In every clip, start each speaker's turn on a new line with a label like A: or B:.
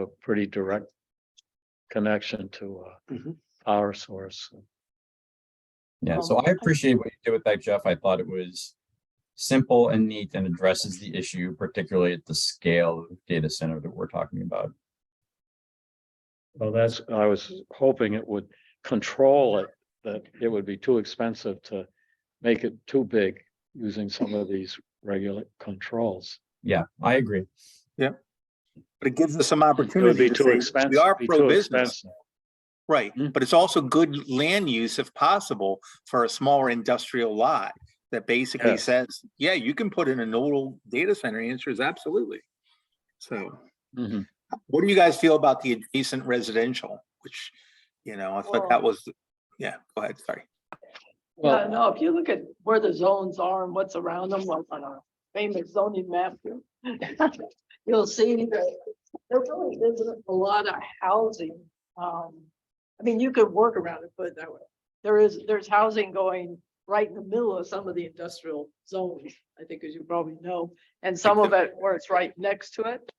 A: a pretty direct connection to a
B: Mhm.
A: power source.
C: Yeah, so
B: Um,
C: I appreciate what you did with that, Jeff. I thought it was simple and neat and addresses the issue, particularly at the scale of data center that we're talking about.
A: Well, that's, I was hoping it would control it, that it would be too expensive to make it too big using some of these regular controls.
C: Yeah, I agree.
B: But it gives us some
A: It would
B: opportunity
A: be
B: to
A: too
B: say,
A: expensive.
B: we are
A: be too
B: pro-business,
A: expensive.
B: right?
A: Mm.
B: But it's also good land use if possible for a smaller industrial lot that basically
A: Yes.
B: says, yeah, you can put in a nodal data center. The Answer is absolutely. So
A: Mhm.
B: what do you guys feel about the adjacent residential, which, you know, I thought that was, yeah, go ahead, sorry.
D: Yeah,
A: Well,
D: no, if you look at where the zones are and what's around them, like on our famous zoning map here, you'll see that there really isn't a lot of housing. Um, I mean, you could work around it, put it that way. There is, there's housing going right in the middle of some of the industrial zones, I think, as you probably know, and some of it where it's right next to it.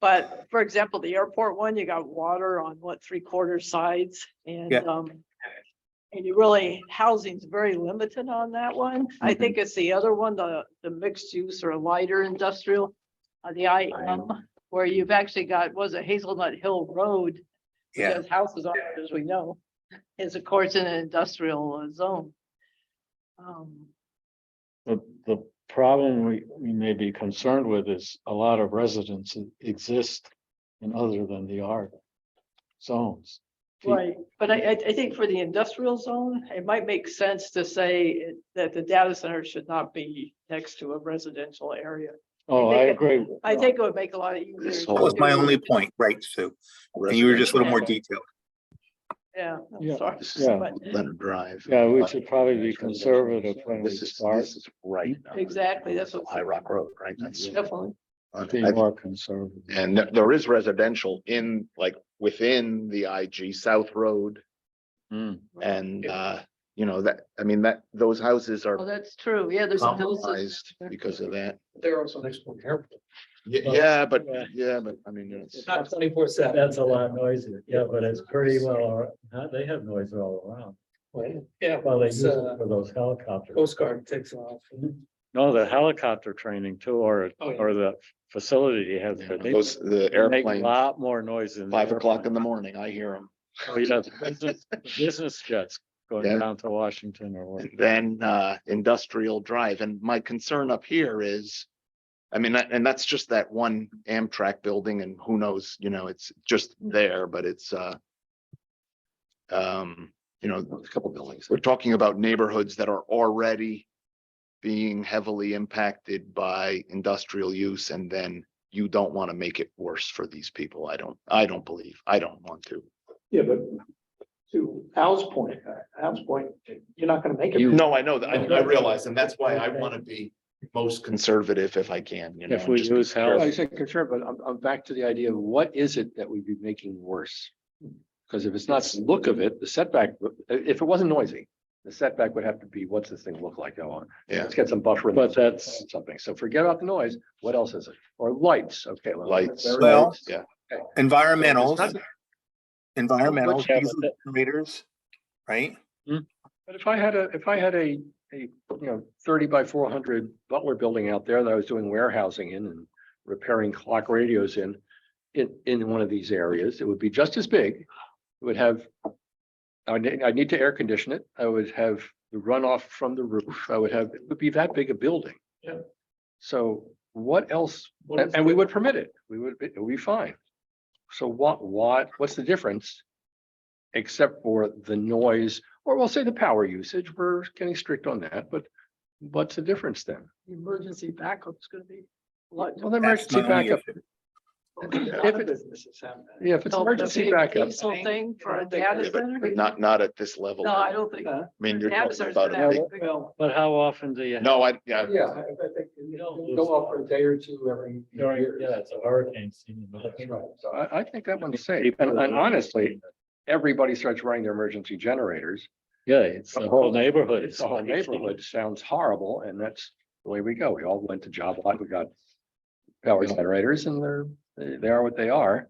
D: But for example, the airport one, you got water on what, three quarter sides and,
B: Yeah.
D: um, and you really, housing's very limited on that one. I
C: Mhm.
D: think it's the other one, the, the mixed use or lighter industrial. Uh, the I M, where you've actually got, was it Hazelnut Hill Road? which
B: Yeah,
D: has Houses on it, as we know, is of course in an industrial uh, zone. Um,
A: the, the problem we, we may be concerned with is a lot of residents exist in other than the R zones. Pe-
D: Right, but I, I, I think for the industrial zone, it might make sense to say it- that the data center should not be next to a residential area.
A: Oh, I
D: think it-
A: agree.
D: I think it would make a lot of easier.
A: This
B: that
A: whole-
B: was my
D: to-
B: only point, right, Sue? And you were just a little more detailed.
D: Yeah,
A: Yeah,
D: I'm sorry.
E: This is
A: Yeah.
D: but-
E: Leonard Drive.
A: Yeah, we should probably be conservative when we
E: This is,
A: start.
E: this is right. now.
D: Exactly, that's what-
E: High Rock Road, right? That's.
D: Definitely.
E: on-
A: Be
E: I-
A: more conservative.
E: And there- there is residential in, like, within the IG South Road
A: Mm.
E: and, uh, you know, that, I mean, that, those houses
D: Well,
E: are
D: Oh, that's true. Yeah, there's. some houses
E: compromised because of that.
F: They're also next to the airport.
E: Ye-
F: Well,
E: Yeah, but,
F: yeah.
E: yeah, but I mean, it's,
F: It's not twenty-four seven.
G: That's a lot noisier, yeah, but it's pretty well, all- huh, they have noise all around.
F: Yeah,
G: Well, they use
F: it's,
G: it
F: uh,
G: for those helicopters.
F: Coast Guard takes off.
A: No, the helicopter training too, or,
F: Oh, yeah.
A: or the facility you have there. they-
E: those, the
A: they make A
E: airplane,
A: lot more noise than. the
E: five o'clock in the
A: airplane.
E: morning, I hear them.
A: Oh, yeah, the business- the Business jets
E: Yeah.
A: going down to Washington or what.
E: And then uh industrial drive. And my concern up here is. I mean, that- and that's just that one Amtrak building and who knows, you know, it's just there, but it's uh. Um, you know, a couple buildings. We're talking about neighborhoods that are already. Being heavily impacted by industrial use and then you don't want to make it worse for these people. I don't, I don't believe, I don't want to.
F: Yeah, but to Al's point, uh, Al's point, you're not gonna make it.
E: No, I know that. I I realize, and that's why I want to be most conservative if I can, you know.
A: If we
E: just-
A: use
H: I
A: heli,
H: said concern, but I'm, I'm back to the idea of what is it that we'd be making worse? Because if it's not the look of it, the setback, uh, if it wasn't noisy, the setback would have to be, what's this thing look like Oh, now on?
E: Yeah.
H: Let's get some buffer. in
A: But
H: there,
A: that's-
H: Something, so forget about the noise, what else is it? Or lights, okay. well,
E: Lights.
H: there are
B: Well,
H: lights.
E: yeah.
B: Environmentals, environmentals,
A: have
B: diesel
A: it.
B: generators, right?
H: But if I had a, if I had a, a, you know, thirty by four hundred Butler building out there that I was doing warehousing in and repairing clock radios in, in, in one of these areas, it would be just as big. It would have, I would, ne- I'd need to air condition it. I would have the runoff from the roof. I would have, it would be that big a building.
F: Yeah.
H: So what else? And, and we would permit it. We would, be- it would be fine. So what, what, what's the difference? Except for the noise, or we'll say the power usage, we're getting strict on that, but what's the difference then?
D: Emergency backup is gonna be. a lot
H: Well, the
B: That's
H: emergency
B: my only
H: backup,
B: issue.
F: If
H: it-
F: businesses have that.
H: yeah, if it's
D: different.
H: emergency
D: The
H: backup,
D: Diesel thing for a
F: Yeah, but-
D: data
E: Yeah,
D: center?
E: But not, not at this level.
D: No, I don't think.
F: Uh,
E: I mean, you're
D: data
E: talking
D: center's
E: about
D: gonna
E: a big,
D: have a big-
F: Well,
A: but how often do you?
E: no, I, yeah,
F: yeah, I I think you don't go off for a day or two every.
G: During,
F: year.
G: yeah, it's a hurricane season. but-
F: That's right.
H: so I, I think that one's safe. And and honestly, everybody starts running their emergency generators.
A: Yeah, it's the whole neighborhood.
H: It's The whole neighborhood sounds horrible and that's the way we go. We all went to job lot, we got power generators and they're, they they are what they are.